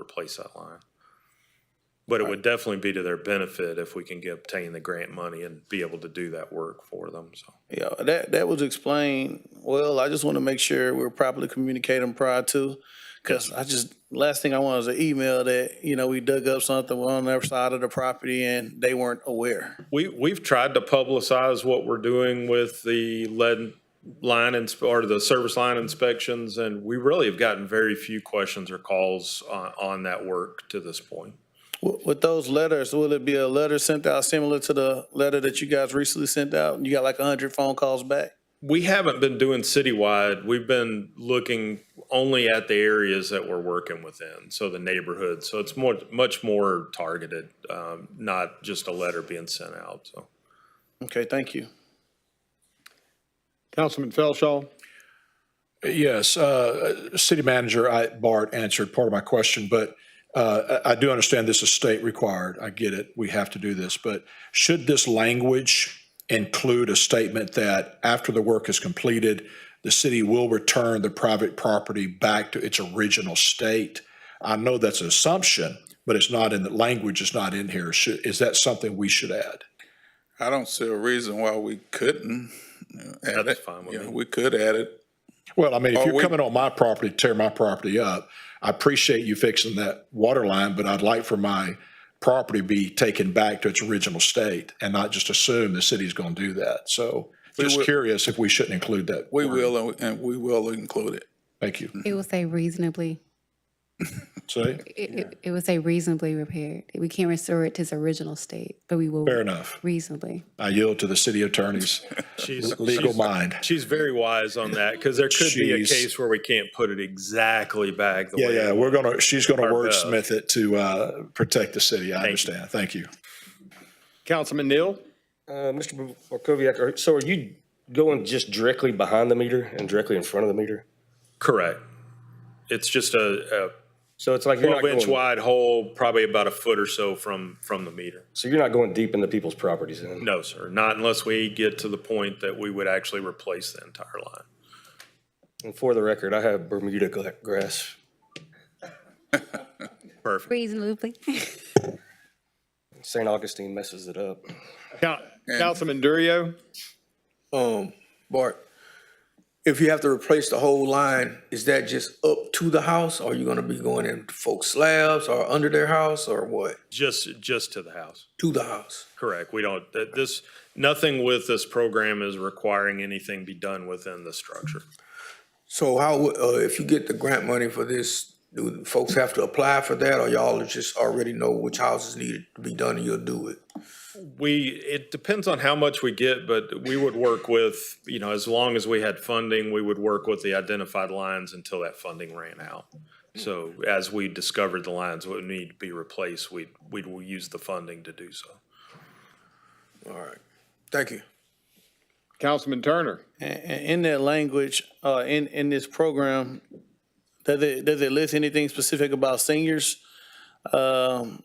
replace that line. But it would definitely be to their benefit if we can get, obtain the grant money and be able to do that work for them, so. Yeah, that, that was explained. Well, I just want to make sure we're properly communicating prior to, because I just, last thing I want is an email that, you know, we dug up something on their side of the property and they weren't aware. We, we've tried to publicize what we're doing with the lead line and, or the service line inspections, and we really have gotten very few questions or calls on, on that work to this point. With, with those letters, will it be a letter sent out similar to the letter that you guys recently sent out? And you got like a hundred phone calls back? We haven't been doing citywide. We've been looking only at the areas that we're working within, so the neighborhoods. So it's more, much more targeted, um, not just a letter being sent out, so. Okay, thank you. Councilman Felshaw, Yes, uh, City Manager I- Bart answered part of my question, but uh, I I do understand this is state required. I get it. We have to do this. But should this language include a statement that after the work is completed, the city will return the private property back to its original state? I know that's an assumption, but it's not in the language, it's not in here. Should- Is that something we should add? I don't see a reason why we couldn't. you know, add That's it. fine with You know, me. We could add it. Well, I mean, Are if you're we- coming on my property, to tear my property up, I appreciate you fixing that water line, but I'd like for my property be taken back to its original state and not just assume the city's going to do that. So just will- curious if we shouldn't include that. We word. will, and we- and we will include it. Thank you. It will say reasonably, See, it, it, it will say reasonably repaired. We can't restore it to its original state, but we will fair enough. reasonably. I yield to the city attorney's She's, legal she's- mind. she's very wise on that, because there could be a She's- case where we can't put it exactly back the Yeah, way. yeah, we're going to, she's going to Or both. wordsmith it to uh, protect the city. I Thank you. understand. Thank you. Councilman Neal, Uh, Mr. Barkoviac, are- so are you going just directly behind the meter and directly in front of the meter? Correct. It's just a, a So it's like you're not twelve inch going, wide hole, probably about a foot or so from, from the meter. so you're not going deep into people's properties then? No, sir, not unless we get to the point that we would actually replace the entire line. And for the record, I have Bermuda gla- grass. Perfect. Reasonably. St. Augustine messes it up. Coun- Councilman Durio, Um, Bart, if you have to replace the whole line, is that just up to the house? Or are you gonna be going in folks slabs or under their house or what? Just, just to the house. To the house? Correct. We don't, that this, nothing with this program is requiring anything be done within the structure. So how, would- uh, if you get the grant money for this, do folks have to apply for that or y'all just already know which houses needed to be done and you'll do it? We, it depends on how much we get, but we would work with, you know, as long as we had funding, we would work with the identified lines until that funding ran out. So as we discovered the lines would need to be replaced, we, we'd use the funding to do so. All right, thank you. Councilman Turner. And, and in that language, uh, in, in this program, does it, does it list anything specific about seniors? Um,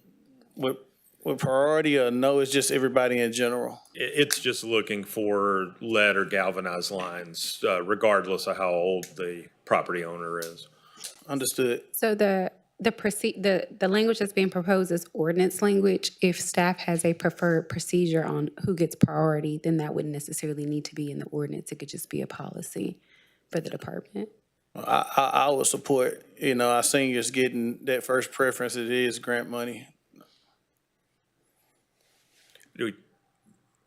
with, with priority or no, it's just everybody in general? It, it's just looking for lead or galvanized lines, uh, regardless of how old the property owner is. Understood. So the, the proceed, the, the language that's being proposed is ordinance language. If staff has a preferred procedure on who gets priority, then that wouldn't necessarily need to be in the ordinance. It could just be a policy for the department. I, I, I would support, you know, our seniors getting that first preference, it is grant money. Do we-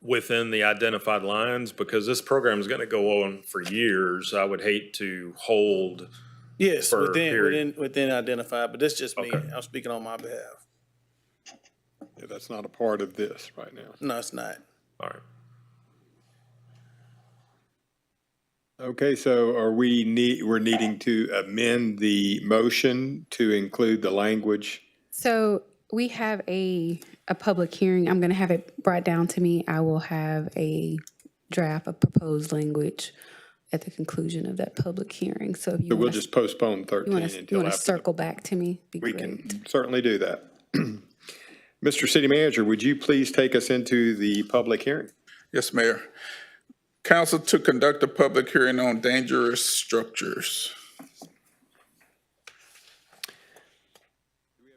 Within the identified lines, because this program is going to go on for years, I would hate to hold Yes, For a within, period. within, within identified, but that's just me. Okay. I'm speaking on my behalf. Yeah, that's not a part of this right now. No, it's not. All right. Okay, so are we need, we're needing to amend the motion to include the language? So we have a, a public hearing. I'm going to have it brought down to me. I will have a draft of proposed language at the conclusion of that public hearing. So if you So we'll want to, just postpone 13 you want to, you until want to after. circle back to me, be We great. can certainly do that. Mr. City Manager, would you please take us into the public hearing? Yes, Mayor. Council to conduct a public hearing on dangerous structures.